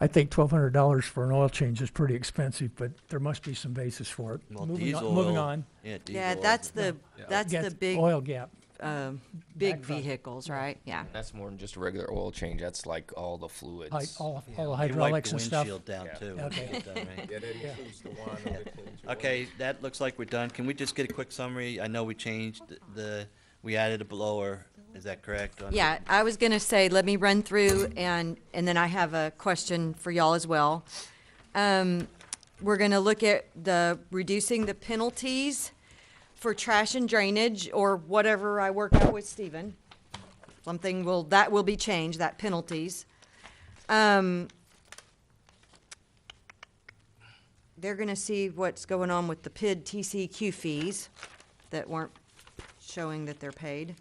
I think twelve hundred dollars for an oil change is pretty expensive, but there must be some basis for it. Well, Moving on- diesel Moving oil- on. Yeah, diesel Yeah, oil. that's the, that's Yes, the big, Oil gap. um, big Backdrop. vehicles, right? Yeah. That's more than just a regular oil change. That's like all the fluids. Hy- All, all the They wiped the hydraulics and stuff. windshield down, Yeah. too. Okay. It's done, right? Yeah, that includes the wine and it includes your Okay, that looks like we're done. Can we just get a quick summary? I know we changed the, we added a blower, is that correct? on- Yeah, I was gonna say, let me run through and, and then I have a question for y'all as well. Um, we're gonna look at the, reducing the penalties for trash and drainage or whatever I work out with Stephen. Something will, that will be changed, that penalties. Um, they're gonna see what's going on with the PID TCQ fees that weren't showing that they're paid.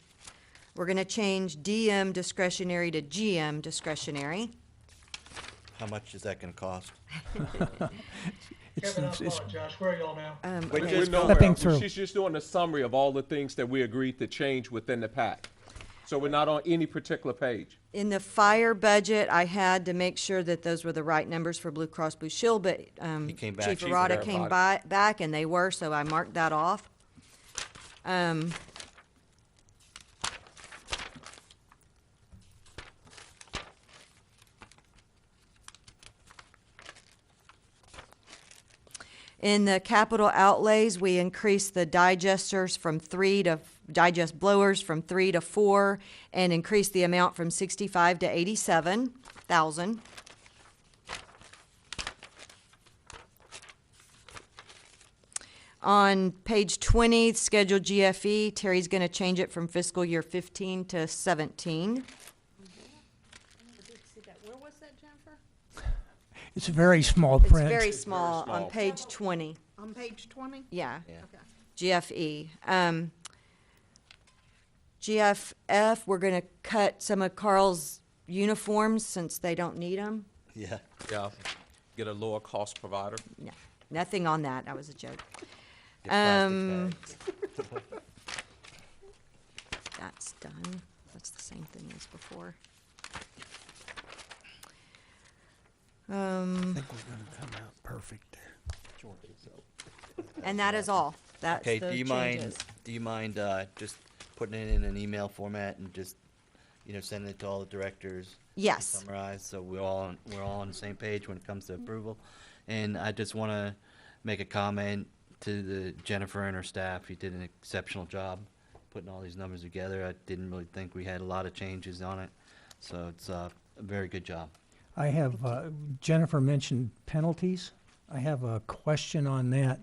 We're gonna change DM discretionary to GM discretionary. How much is that gonna cost? It's- Kevin, I it's- apologize. Where are y'all now? Um, We're okay. just We're Stepping nowhere. through. She's just doing a summary of all the things that we agreed to change within the pack. So we're not on any particular page. In the fire budget, I had to make sure that those were the right numbers for Blue Cross Blue Shield, but, um, He came Chief back. Chief Arata came Arata. by, back and they were, so I marked that off. Um, In the capital outlays, we increased the digesters from three to, digest blowers from three to four, and increased the amount from sixty-five to eighty-seven thousand. On page twenty, scheduled GFE, Terry's gonna change it from fiscal year fifteen to seventeen. Where was that, Jennifer? It's very small It's print. very small on small. page twenty, On page twenty? yeah. Yeah. Okay. GFE. Um, GFF, we're gonna cut some of Carl's uniforms since they don't need them. Yeah, Yeah, get a lower cost provider. No, nothing on that, that was a joke. get plastic Um, bags. That's done. That's the same thing as before. Um. I think we're gonna come out perfect there. And that is all. That's Okay, the do you mind, changes. do you mind, uh, just putting it in an email format and just, you know, sending it to all the directors? Yes, Summarize, so we're all, on- we're all on the same page when it comes to approval. And I just wanna make a comment to the Jennifer and her staff, you did an exceptional job putting all these numbers together. I didn't really think we had a lot of changes on it, so it's, uh, a very good job. I have, uh, Jennifer mentioned penalties. I have a question on that.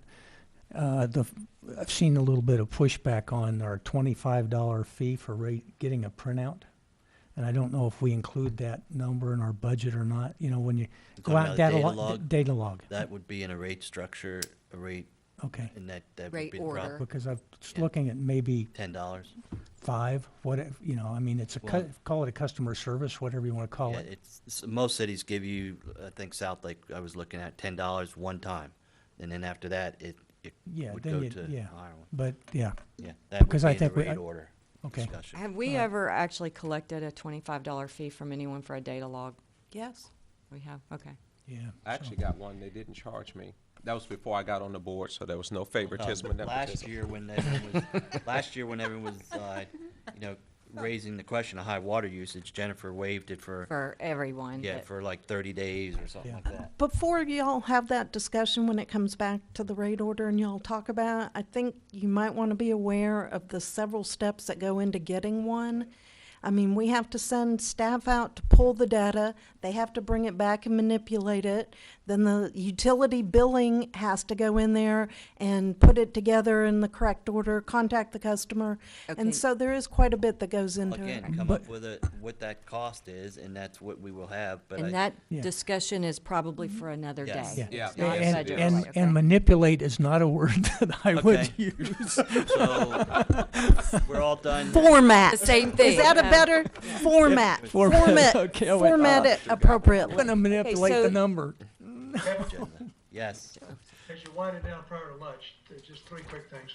Uh, the, I've seen a little bit of pushback on our twenty-five dollar fee for ra- getting a printout. And I don't know if we include that number in our budget or not, you know, when you go talking out about data data log, log? data log, That would be in a rate structure, a rate, okay. and that, that would Rate be prob- order. Because I'm just Yeah. looking at maybe ten dollars. five, what, if- you know, I mean, it's a, cu- Well- call it a customer service, whatever you wanna call Yeah, it. it's, s- most cities give you, I think South Lake, I was looking at ten dollars one time, and then after that, it, it Yeah, would then go you- to yeah. a higher one. But, yeah, Yeah, that would Because be I in the think we- I- rate order okay. discussion. Have we ever actually collected a twenty-five dollar fee from anyone for a data log? Yes. We have, okay. yeah. I so- actually got one, they didn't charge me. That was before I got on the board, so there was no Uh, favoritism or Last nepotism. year when everyone was, last year when everyone was, uh, you know, raising the question of high water usage, Jennifer waived it for, For everyone. yeah, but- for like thirty days or something Yeah. like that. Before y'all have that discussion when it comes back to the rate order and y'all talk about, it, I think you might want to be aware of the several steps that go into getting one. I mean, we have to send staff out to pull the data, they have to bring it back and manipulate it. Then the utility billing has to go in there and put it together in the correct order, contact the customer. Okay. And so there is quite a bit that goes into it. Again, come But- up with a, what that cost is, and that's what we will have, but I. And that Yeah. discussion is probably for another Yes. day. Yeah. It's Yeah, not yes, it budget is. And, related, okay. and manipulate is not a word that I would Okay. use. So, we're all done. Format. The same thing, Is that a yeah. better format? Format, Format, okay, I went, uh, format it I'm appropriately. gonna manipulate so- the number. agenda. Yes. As you're winding down prior to lunch, there's just three quick things.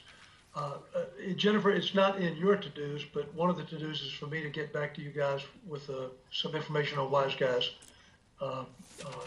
Uh, uh, Jennifer, it's not in your to-dos, but one of the to-dos is for me to get back to you guys with uh, some information on Wise Guys. Uh, uh,